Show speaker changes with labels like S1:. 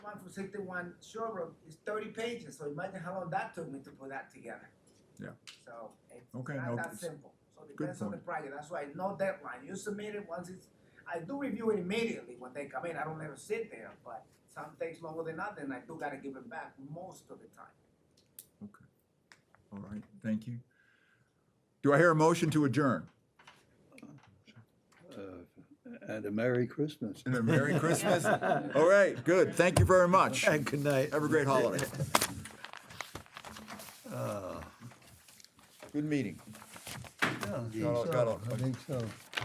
S1: one for sixty-one showroom is thirty pages, so imagine how long that took me to put that together.
S2: Yeah.
S1: So it's
S2: Okay,
S1: not
S2: no,
S1: that
S2: it's-
S1: simple, so depends on the
S2: point.
S1: project, that's why no deadline, you submit it once it's, I do review it immediately when they come in, I don't let it sit there, but some takes longer than others, and I do gotta give it back most of the time.
S2: okay. All right, thank you. Do I hear a motion to adjourn?
S3: Uh, And a Merry Christmas.
S2: And a Merry Christmas. All right, good. Thank you very much.
S3: And good night.
S2: Have a great holiday.
S3: Uh,
S2: Good meeting.
S3: yeah, I think
S2: Got all- got
S3: so,
S2: all-
S3: I think so.